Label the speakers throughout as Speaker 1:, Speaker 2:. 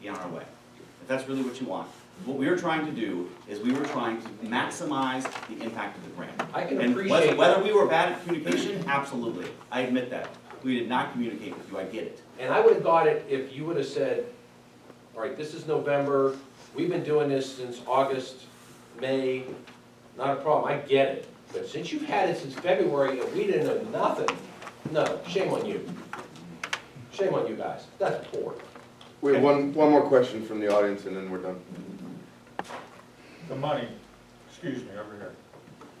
Speaker 1: be on our way. If that's really what you want. What we were trying to do is we were trying to maximize the impact of the grant.
Speaker 2: I can
Speaker 1: And whether-
Speaker 2: appreciate
Speaker 1: Whether we were bad at communication, absolutely. I admit that. We did not communicate with you, I get it.
Speaker 2: And I would have got it if you would have said, all right, this is November, we've been doing this since August, May, not a problem, I get it. But since you've had it since February and we didn't know nothing, no, shame on you. Shame on you guys, that's poor.
Speaker 3: We have one, one more question from the audience and then we're done.
Speaker 4: The money, excuse me, over here.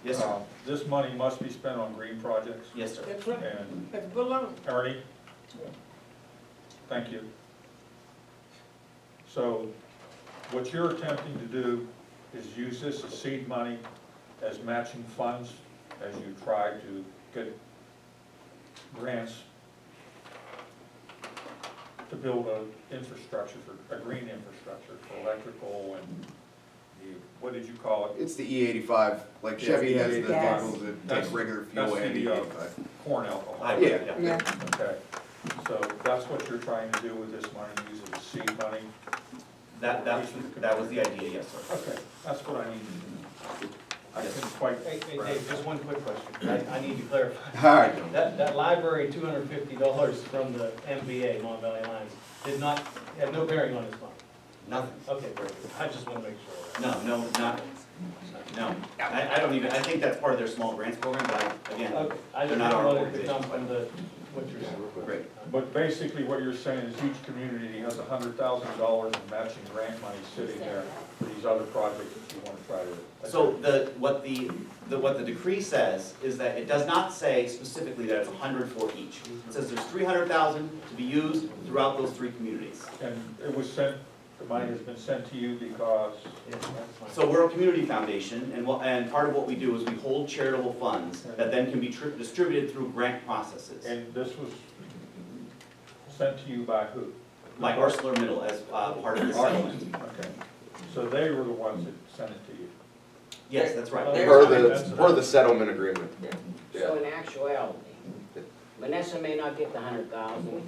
Speaker 1: Yes, sir.
Speaker 2: Oh.
Speaker 4: Uh, This money must be spent on green projects,
Speaker 1: Yes, sir.
Speaker 5: That's right,
Speaker 4: and
Speaker 5: that's baloney.
Speaker 4: Ernie? Thank you. So, what you're attempting to do is use this as seed money, as matching funds, as you try to get grants to build a infrastructure, for a green infrastructure for electrical and the, what did you call it?
Speaker 3: It's the E eighty-five, like Chevy has the
Speaker 5: Yes.
Speaker 3: vehicles that
Speaker 4: E That's-
Speaker 3: take regular fuel
Speaker 4: that's
Speaker 3: and E
Speaker 4: the, uh,
Speaker 3: eighty-five.
Speaker 4: corn alcohol.
Speaker 1: I-
Speaker 3: Yeah.
Speaker 5: Yeah,
Speaker 4: Okay, so that's what you're trying to do with this money, use it as seed money?
Speaker 1: That, that was, that was the idea, yes, sir.
Speaker 4: Okay, that's what I need to know. I couldn't quite.
Speaker 6: Hey, hey, Dave, just one quick question. I, I need to clarify.
Speaker 3: All right,
Speaker 6: That, that library, two hundred and fifty dollars from the MBA, Mon Valley Alliance, did not, had no bearing on this fund.
Speaker 1: Nothing.
Speaker 6: Okay, very good. I just want to make sure.
Speaker 1: No, no, not, no. I, I don't even, I think that's part of their small grants program, but I- again,
Speaker 6: Okay, I
Speaker 1: They're
Speaker 6: just
Speaker 1: not our
Speaker 6: wanted to come
Speaker 1: organization.
Speaker 6: from the, what you're saying.
Speaker 1: great.
Speaker 4: But basically what you're saying is each community has a hundred thousand dollars in matching grant money sitting there for these other projects that you wanna try to.
Speaker 1: So the, what the, the, what the decree says is that it does not say specifically that it's hundred for each. It says there's three hundred thousand to be used throughout those three communities.
Speaker 4: And it was sent, the money has been sent to you because,
Speaker 6: Yeah, that's fine.
Speaker 1: So we're a community foundation, and what, and part of what we do is we hold charitable funds that then can be tri- distributed through grant processes.
Speaker 4: and this was sent to you by who?
Speaker 1: Like ArcelorMittal as, uh, part of the settlement.
Speaker 4: Okay, so they were the ones that sent it to you.
Speaker 1: Yes, that's right.
Speaker 3: per
Speaker 4: That's-
Speaker 3: the, per the settlement agreement.
Speaker 7: So in actuality, Vanessa may not get the hundred thousand,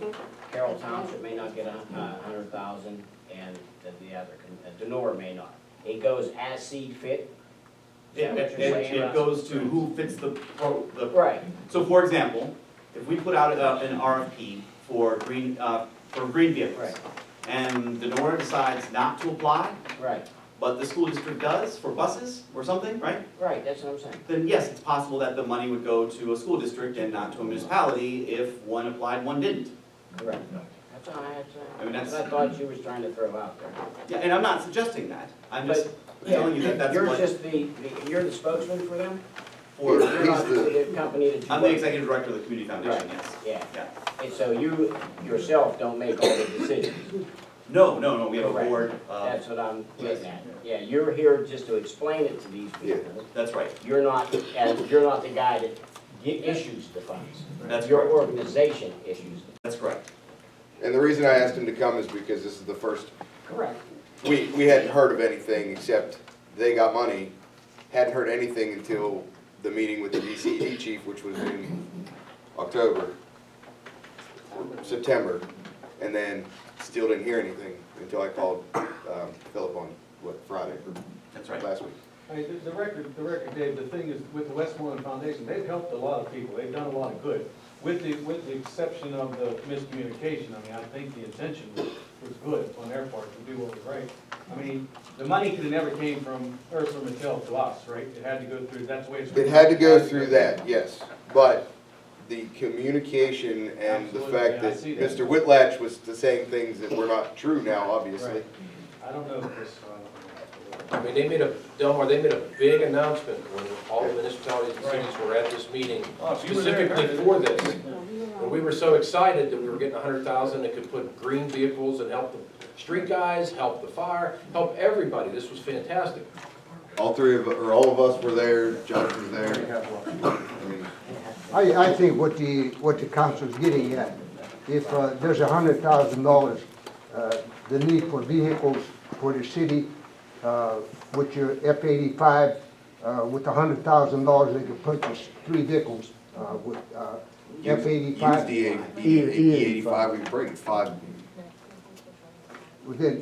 Speaker 7: Carroll Township may not get a hundred thousand, and the the other, con- uh, Denora may not. It goes as seed fit?
Speaker 1: It, it, it- it goes to who fits the, pro- the
Speaker 7: Right,
Speaker 1: So for example, if we put out uh, an RFP for green, uh, for green vehicles,
Speaker 7: Right.
Speaker 1: and the Nora decides not to apply,
Speaker 7: right,
Speaker 1: but the school district does for buses or something, right?
Speaker 7: right, that's what I'm saying.
Speaker 1: Then yes, it's possible that the money would go to a school district and not to a municipality if one applied, one didn't.
Speaker 7: Correct. That's all I had to say.
Speaker 1: I mean, that's-
Speaker 7: That's what I thought you was trying to throw out there.
Speaker 1: Yeah, and I'm not suggesting that, I'm just
Speaker 7: Yeah,
Speaker 1: telling you that that's
Speaker 7: You're
Speaker 1: what,
Speaker 7: just the, the- you're the spokesman for them?
Speaker 1: for,
Speaker 7: You're not
Speaker 3: He's the-
Speaker 7: the company that you
Speaker 1: I'm the
Speaker 7: work-
Speaker 1: executive director of the community foundation, yes.
Speaker 7: Yeah,
Speaker 1: Yeah.
Speaker 7: and so you yourself don't make all the decisions.
Speaker 1: No, no, no, we have a
Speaker 7: Correct.
Speaker 1: board, uh,
Speaker 7: That's what I'm
Speaker 1: yes.
Speaker 7: getting at. Yeah, you're here just to explain it to these people.
Speaker 1: that's right,
Speaker 7: You're not, and you're not the guy that gi- issues the funds.
Speaker 1: That's
Speaker 7: Your
Speaker 1: correct.
Speaker 7: organization issues them.
Speaker 1: that's correct.
Speaker 3: And the reason I asked him to come is because this is the first,
Speaker 7: Correct.
Speaker 3: we, we hadn't heard of anything except they got money. Hadn't heard anything until the meeting with the DCD chief, which was in October, or September. And then still didn't hear anything until I called, um, Philip on, what, Friday,
Speaker 1: That's
Speaker 3: or
Speaker 1: right.
Speaker 3: last week.
Speaker 6: I mean, the- the record, the record, Dave, the thing is, with the Westmoreland Foundation, they've helped a lot of people, they've done a lot of good. With the, with the exception of the miscommunication, I mean, I think the intention was, was good on their part to do what was right. I mean, the money could have never came from Ursula Mattel to us, right? It had to go through, that's the way it's.
Speaker 3: It had to go through that, yes, but the communication and the
Speaker 6: Absolutely,
Speaker 3: fact
Speaker 6: yeah, I
Speaker 3: that
Speaker 6: see that.
Speaker 3: Mr. Whitlatch was saying things that were not true now, obviously.
Speaker 6: Right. I don't know if this, uh,
Speaker 2: I mean, they made a, Delmar, they made a big announcement when all the municipalities and cities were at this meeting
Speaker 4: Oh, you were there,
Speaker 2: specifically for this. And we were so excited that we were getting a hundred thousand that could put green vehicles and help the street guys, help the fire, help everybody. This was fantastic.
Speaker 3: All three of, or all of us were there, Josh was there. I mean,
Speaker 8: I, I think what the, what the council's getting at, if uh, there's a hundred thousand dollars, uh, the need for vehicles for the city, uh, with your F eighty-five, uh, with a hundred thousand dollars, they could purchase three vehicles, uh, with, uh, F
Speaker 3: Use
Speaker 8: eighty-five.
Speaker 3: E the E eighty-five, we can bring five
Speaker 8: Within,